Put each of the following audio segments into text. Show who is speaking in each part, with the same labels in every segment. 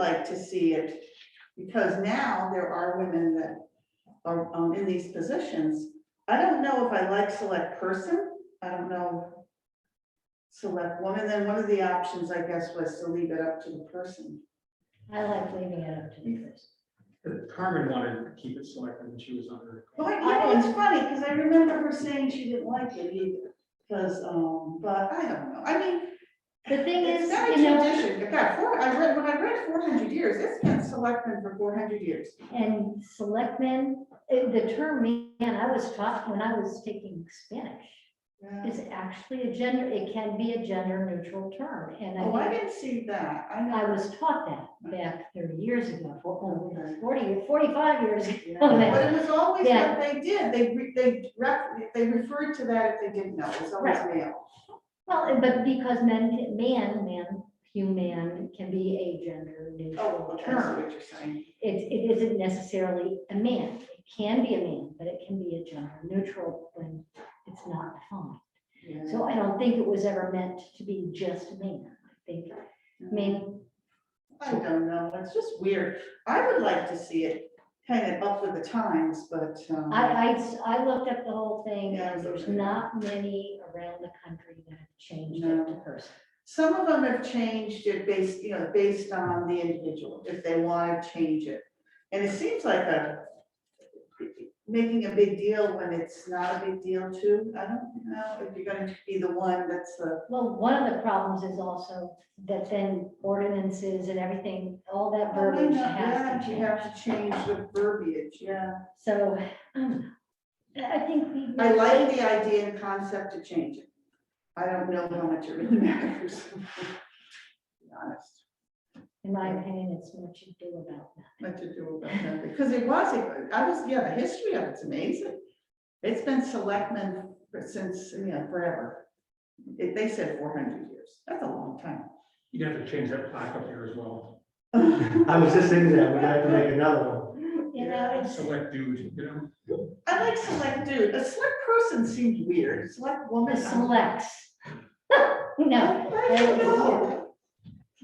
Speaker 1: like to see it, because now there are women that are um, in these positions. I don't know if I like select person, I don't know. Select woman, then one of the options, I guess, was to leave it up to the person.
Speaker 2: I like leaving it up to
Speaker 1: Mm.
Speaker 2: the person.
Speaker 3: Carmen wanted to keep it selective when she was on her.
Speaker 1: Well, you know, it's funny, because I remember her saying she didn't like it either, because, um, but I don't know, I mean.
Speaker 2: The thing
Speaker 1: it's
Speaker 2: is,
Speaker 1: not a
Speaker 2: you know-
Speaker 1: tradition. It got four, I read, when I read four hundred years, it's been selectmen for four hundred years.
Speaker 2: And selectmen, eh, the term man, I was taught when I was taking Spanish,
Speaker 1: Yeah.
Speaker 2: is actually a gender, it can be a gender neutral term. And
Speaker 1: Oh, I
Speaker 2: I,
Speaker 1: didn't see that, I
Speaker 2: I
Speaker 1: know.
Speaker 2: was taught that back thirty years ago, for- oh,
Speaker 1: Okay.
Speaker 2: forty, forty-five years ago.
Speaker 1: But it was always
Speaker 2: Oh, Yeah.
Speaker 1: what they did, they, re- they, ref- they referred to that if they didn't know, it was always male.
Speaker 2: Well, eh, but because men, can- man, man, human can be a gender neutral term.
Speaker 1: Oh, what you're saying.
Speaker 2: it, it isn't necessarily a man. It can be a man, but it can be a gender neutral when it's not defined. So I don't think it was ever meant to be just a man. I think, I mean,
Speaker 1: I don't know, it's just weird, I would like to see it kind of up with the times, but, um.
Speaker 2: I, I, I looked up the whole thing
Speaker 1: Yeah,
Speaker 2: and there's
Speaker 1: okay.
Speaker 2: not many around the country that have changed
Speaker 1: No.
Speaker 2: it to person.
Speaker 1: Some of them have changed it based, you know, based on the individual, if they want to change it. And it seems like a, making a big deal when it's not a big deal too. I don't know if you're gonna be the one that's the,
Speaker 2: Well, one of the problems is also that then ordinances and everything, all that verbiage has
Speaker 1: yeah,
Speaker 2: to
Speaker 1: you
Speaker 2: change.
Speaker 1: have to change the verbiage, yeah.
Speaker 2: So, um, I I think we.
Speaker 1: I like the idea and concept to change it. I don't know how much it really matters. to be Honest.
Speaker 2: In my opinion, it's what you do about that.
Speaker 1: what to do about that, because it was, I was, yeah, the history of it's amazing. It's been selectmen for- since, you know, forever. It- They said four hundred years, that's a long time.
Speaker 3: You'd have to change that plaque up there as well.
Speaker 4: I was just thinking that, we're gonna have to make another one.
Speaker 2: You know, it's,
Speaker 3: Select dude, you know?
Speaker 1: I like select dude, a select person seems weird, select woman.
Speaker 2: the
Speaker 1: I'm-
Speaker 2: selects. No,
Speaker 1: I don't know.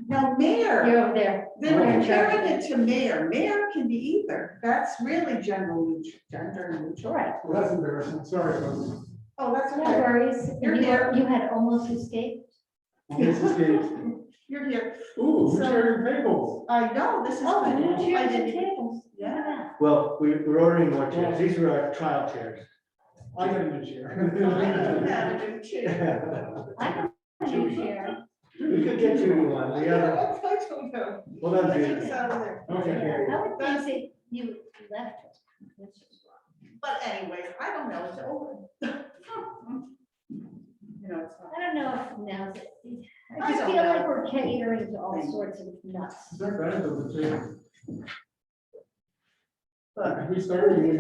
Speaker 1: Now, mayor,
Speaker 2: you're over there.
Speaker 1: they were comparing it to mayor, mayor can be either, that's really general, neut- gender neutral.
Speaker 2: Right.
Speaker 4: Well, that's embarrassing, sorry. folks.
Speaker 1: Oh, that's
Speaker 2: No
Speaker 1: okay,
Speaker 2: worries. You
Speaker 1: You're
Speaker 2: were-
Speaker 1: here.
Speaker 2: you had almost escaped.
Speaker 4: This is good.
Speaker 1: you're here,
Speaker 4: Ooh, who's
Speaker 1: So-
Speaker 4: ordering tables?
Speaker 1: I know, this is.
Speaker 2: Oh,
Speaker 1: good.
Speaker 2: new
Speaker 1: I
Speaker 2: chairs
Speaker 1: didn't
Speaker 2: and
Speaker 1: even-
Speaker 2: tables. Look at that.
Speaker 4: Well, we, we're ordering more chairs, these were our trial chairs.
Speaker 3: I got a new chair.
Speaker 1: I don't too.
Speaker 2: I have a new chair.
Speaker 4: We could get you one, the other,
Speaker 1: I don't know.
Speaker 4: well, that's
Speaker 1: Let's
Speaker 4: good.
Speaker 1: get this out of there.
Speaker 4: Okay.
Speaker 2: I would think that you left. us. This is wrong.
Speaker 1: But anyway, I don't know, it's over. You know, it's not.
Speaker 2: I don't know if now,
Speaker 1: I
Speaker 2: I just
Speaker 1: don't
Speaker 2: feel like
Speaker 1: know.
Speaker 2: we're catering to all sorts of nuts.
Speaker 3: Not bad, though, the chair.
Speaker 1: But
Speaker 3: We started. we-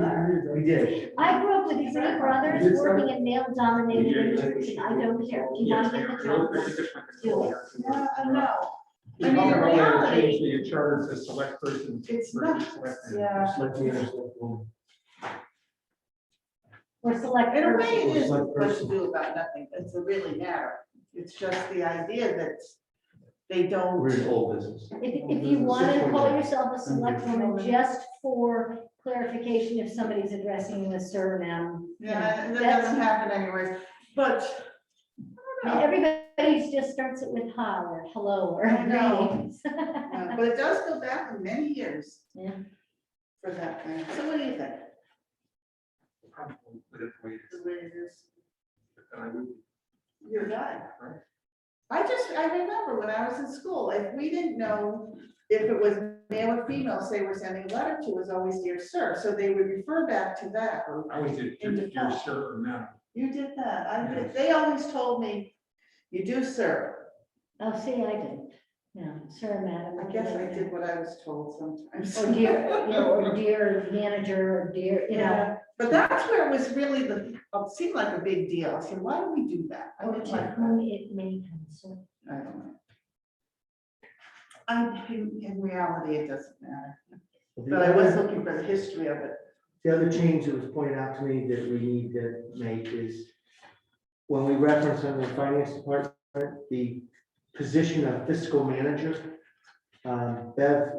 Speaker 4: We did.
Speaker 2: I grew up with these little
Speaker 3: Is
Speaker 2: brothers
Speaker 3: it so?
Speaker 2: working in male dominated churches. I don't care. Do
Speaker 3: Yes,
Speaker 2: not
Speaker 3: they
Speaker 2: get the
Speaker 3: are.
Speaker 2: job.
Speaker 3: They're just like a controller.
Speaker 1: uh, no,
Speaker 3: We
Speaker 1: I mean, in
Speaker 3: probably ought to
Speaker 1: reality-
Speaker 3: change The charter to select person.
Speaker 1: it's
Speaker 3: versus
Speaker 1: not,
Speaker 3: select man.
Speaker 1: yeah.
Speaker 4: Select me or select woman.
Speaker 2: Or select.
Speaker 1: In a
Speaker 2: person.
Speaker 1: way, it is
Speaker 4: Select
Speaker 1: much to
Speaker 4: person.
Speaker 1: do about nothing. It's a really matter. It's just the idea that they
Speaker 4: We're
Speaker 1: don't.
Speaker 4: in old business.
Speaker 2: If, if you want to call yourself a select woman, just for clarification, if somebody's addressing you as sir, ma'am. you know,
Speaker 1: Yeah, and that
Speaker 2: that's-
Speaker 1: doesn't happen anyways, but. I don't know.
Speaker 2: Everybody just starts it with hi or hello or
Speaker 1: I know.
Speaker 2: greetings.
Speaker 1: Uh, But it does go back many years.
Speaker 2: Yeah.
Speaker 1: For that thing. So what do you think?
Speaker 3: Probably with it the way it
Speaker 1: The
Speaker 3: is,
Speaker 1: way it is.
Speaker 3: and I would-
Speaker 1: You're right.
Speaker 3: Right.
Speaker 1: I just, I remember when I was in school, if we didn't know if it was male or female, say we're sending a letter to, it was always dear sir, so they would refer back to that, or
Speaker 3: I always did,
Speaker 1: In the
Speaker 3: dear dear sir or madam.
Speaker 1: you did that, I did, they always told me, you do sir.
Speaker 2: Oh, see, I didn't. No, sir, madam.
Speaker 1: I guess I did what I was told sometimes.
Speaker 2: Or dear, you know, or dear manager, or dear, you know,
Speaker 1: Yeah, But that's where it was really the, it seemed like a big deal, I said, why do we Oh, do that? I
Speaker 2: or
Speaker 1: didn't
Speaker 2: to
Speaker 1: like that.
Speaker 2: whom it may concern.
Speaker 1: I don't know. I, in, in reality, it doesn't matter, but I was looking for the history of it.
Speaker 4: The other change that was pointed out to me that we need to make is when we reference in the finance department, the position of fiscal manager, Um, Bev